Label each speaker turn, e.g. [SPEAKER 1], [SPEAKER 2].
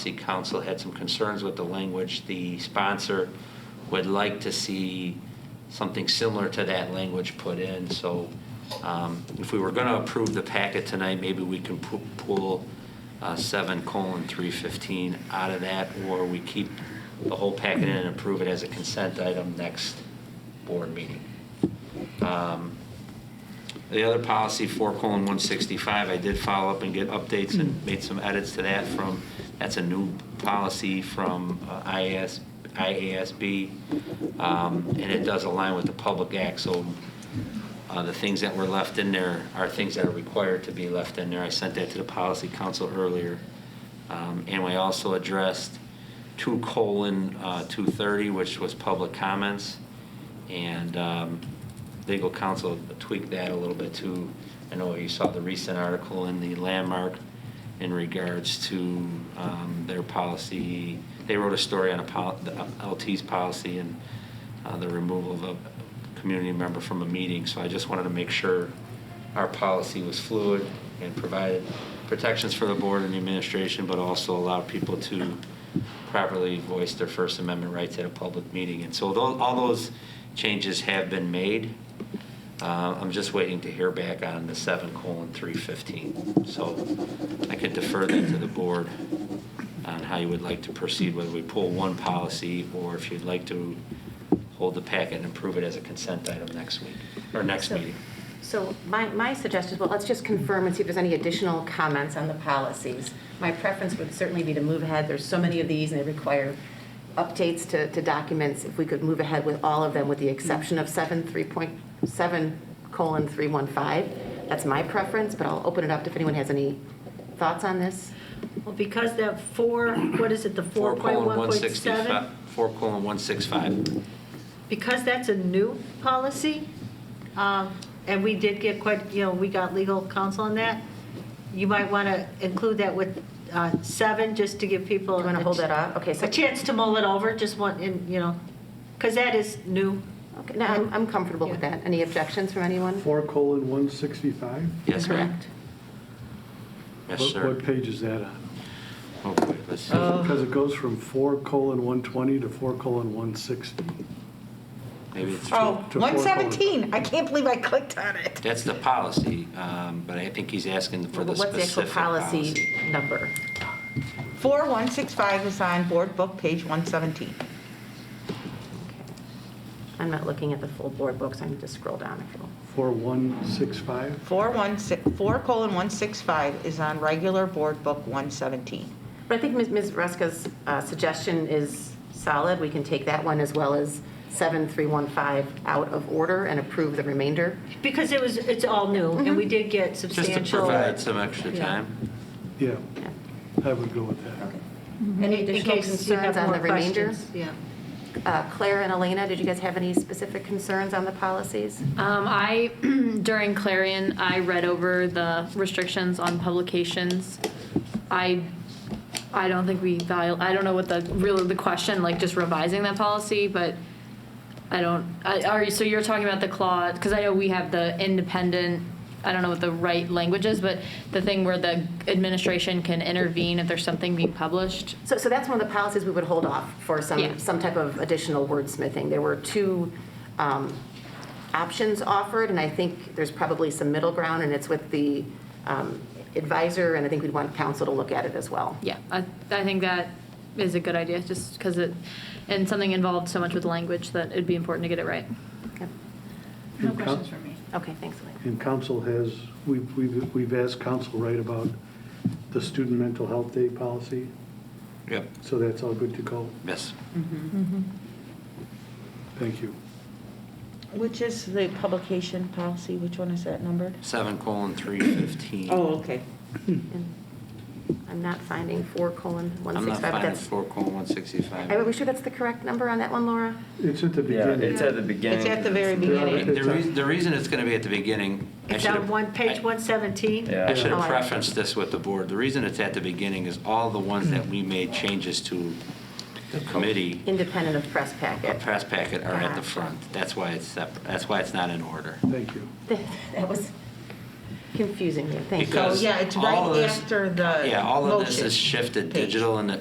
[SPEAKER 1] City Council had some concerns with the language. The sponsor would like to see something similar to that language put in, so um, if we were going to approve the packet tonight, maybe we can pu- pull uh, 7 colon 315 out of that, or we keep the whole packet in and approve it as a consent item next board meeting. Um, the other policy, four colon one sixty-five, I did follow up and get updates and made some edits to that from, that's a new policy from uh, IAS, IASB. um, And it does align with the Public Act, so uh, the things that were left in there are things that are required to be left in there. I sent that to the policy council earlier. Um, And we also addressed two colon uh, two thirty, which was public comments. And um, legal counsel tweaked that a little bit too. I know you saw the recent article in the Landmark in regards to um, their policy. They wrote a story on a pol- the LT's policy and uh, the removal of a community member from a meeting. So I just wanted to make sure our policy was fluid and provided protections for the board and the administration, but also allowed people to properly voice their First Amendment rights at a public meeting. And so tho- all those changes have been made. Uh, I'm just waiting to hear back on the 7 colon 315. So I could defer that to the board on how you would like to proceed, whether we pull one policy or if you'd like to hold the packet and approve it as a consent item next week, or next
[SPEAKER 2] So-
[SPEAKER 1] meeting.
[SPEAKER 2] So my, my suggestion, well, let's just confirm and see if there's any additional comments on the policies. My preference would certainly be to move ahead. There's so many of these, and they require updates to, to documents. If we could move ahead with all of them, with the exception of 7, 3.7 colon 315, that's my preference, but I'll open it up if anyone has any thoughts on this.
[SPEAKER 3] Well, because that four, what is it, the
[SPEAKER 1] 4 colon 165
[SPEAKER 3] 4.1.7?
[SPEAKER 1] 4 colon 165.
[SPEAKER 3] Because that's a new policy, um, and we did get quite, you know, we got legal counsel on that, you might want to include that with uh, seven, just to give people.
[SPEAKER 2] You wanna
[SPEAKER 3] a
[SPEAKER 2] hold
[SPEAKER 3] ch-
[SPEAKER 2] that up? Okay, so-
[SPEAKER 3] A chance to mull it over, just one, and, you know, because that is new.
[SPEAKER 2] Okay, no, I'm I'm comfortable with
[SPEAKER 3] Yeah.
[SPEAKER 2] that. Any objections from anyone?
[SPEAKER 4] Four colon one sixty-five?
[SPEAKER 1] Yes, ma'am.
[SPEAKER 2] Correct.
[SPEAKER 1] Yes, sir.
[SPEAKER 4] What page is that on?
[SPEAKER 1] Oh, wait, let's see.
[SPEAKER 4] Because it goes from four colon one twenty to four colon one sixty.
[SPEAKER 1] Maybe it's
[SPEAKER 5] Oh,
[SPEAKER 1] true.
[SPEAKER 4] To
[SPEAKER 5] 117, I can't believe I clicked on it.
[SPEAKER 1] That's the policy, um, but I think he's asking for the
[SPEAKER 2] Well, What's the actual
[SPEAKER 1] specific
[SPEAKER 2] policy
[SPEAKER 1] policy.
[SPEAKER 2] number?
[SPEAKER 5] 4165 is on board book, page 117.
[SPEAKER 2] I'm not looking at the full board books, I need to scroll down a little.
[SPEAKER 4] Four one six five?
[SPEAKER 5] 416, 4:165 is on regular board book 117.
[SPEAKER 2] But I think Ms. Ms. Ruska's uh, suggestion is solid. We can take that one as well as 7315 out of order and approve the remainder.
[SPEAKER 3] Because it was, it's all new,
[SPEAKER 2] Mm-hmm.
[SPEAKER 3] and we did get
[SPEAKER 1] Just to
[SPEAKER 3] substantial.
[SPEAKER 1] provide some extra
[SPEAKER 3] Yeah.
[SPEAKER 1] time.
[SPEAKER 4] Yeah,
[SPEAKER 2] Yeah.
[SPEAKER 4] I would go with that.
[SPEAKER 2] Any
[SPEAKER 3] In
[SPEAKER 2] additional
[SPEAKER 3] case you have
[SPEAKER 2] concerns on
[SPEAKER 3] more
[SPEAKER 2] the remainder?
[SPEAKER 3] questions, Yeah.
[SPEAKER 2] Uh, Claire and Elena, did you guys have any specific concerns on the policies?
[SPEAKER 6] Um, I, during Clarion, I read over the restrictions on publications. I, I don't think we, viol- I don't know what the, really the question, like just revising that policy, but I don't, I, are you, so you're talking about the clause, because I know we have the independent, I don't know what the right language is, but the thing where the administration can intervene if there's something being published.
[SPEAKER 2] So, so that's one of the policies we would hold off for
[SPEAKER 6] Yeah.
[SPEAKER 2] some, some type of additional wordsmithing. There were two um, options offered, and I think there's probably some middle ground, and it's with the um, advisor, and I think we'd want council to look at it as well.
[SPEAKER 6] Yeah, I, I think that is a good idea, just because it, and something involved so much with language that it'd be important to get it right.
[SPEAKER 2] Okay.
[SPEAKER 4] No questions from me.
[SPEAKER 2] Okay, thanks, Elena.
[SPEAKER 4] And council has, we've, we've we've asked council, right, about the student mental health day policy,
[SPEAKER 1] Yep.
[SPEAKER 4] so that's all good to go.
[SPEAKER 1] Yes.
[SPEAKER 2] Mm-hmm.
[SPEAKER 4] Thank you.
[SPEAKER 5] Which is the publication policy, which one is that numbered?
[SPEAKER 1] 7 colon 315.
[SPEAKER 5] Oh, okay.
[SPEAKER 2] And I'm not finding four colon
[SPEAKER 1] I'm not
[SPEAKER 2] 165, but
[SPEAKER 1] finding
[SPEAKER 2] that's,
[SPEAKER 1] 4 colon 165.
[SPEAKER 2] are we sure that's the correct number on that one, Laura?
[SPEAKER 4] It's at the
[SPEAKER 7] Yeah,
[SPEAKER 4] beginning.
[SPEAKER 7] it's at the beginning.
[SPEAKER 5] It's at the very
[SPEAKER 4] Yeah,
[SPEAKER 5] beginning.
[SPEAKER 1] The reason, the reason it's going to be at the beginning. I
[SPEAKER 3] It's
[SPEAKER 1] should've-
[SPEAKER 3] on one, page
[SPEAKER 1] I-
[SPEAKER 3] 117.
[SPEAKER 1] I
[SPEAKER 7] Yeah.
[SPEAKER 1] should
[SPEAKER 2] Oh,
[SPEAKER 1] have
[SPEAKER 2] I-
[SPEAKER 1] prefaced this with the board. The reason it's at the beginning is all the ones that we made changes to the committee,
[SPEAKER 2] Independent of press
[SPEAKER 1] the
[SPEAKER 2] packet.
[SPEAKER 1] press packet are at the
[SPEAKER 2] Gotcha.
[SPEAKER 1] front. That's why it's separate, that's why it's not in order.
[SPEAKER 4] Thank you.
[SPEAKER 2] That was confusing me, thank you.
[SPEAKER 1] Because
[SPEAKER 5] Oh, yeah, it's
[SPEAKER 1] all
[SPEAKER 5] right
[SPEAKER 1] of this-
[SPEAKER 5] after the
[SPEAKER 1] Yeah, all of this
[SPEAKER 5] motion
[SPEAKER 1] is shifted
[SPEAKER 5] page.
[SPEAKER 1] digital and the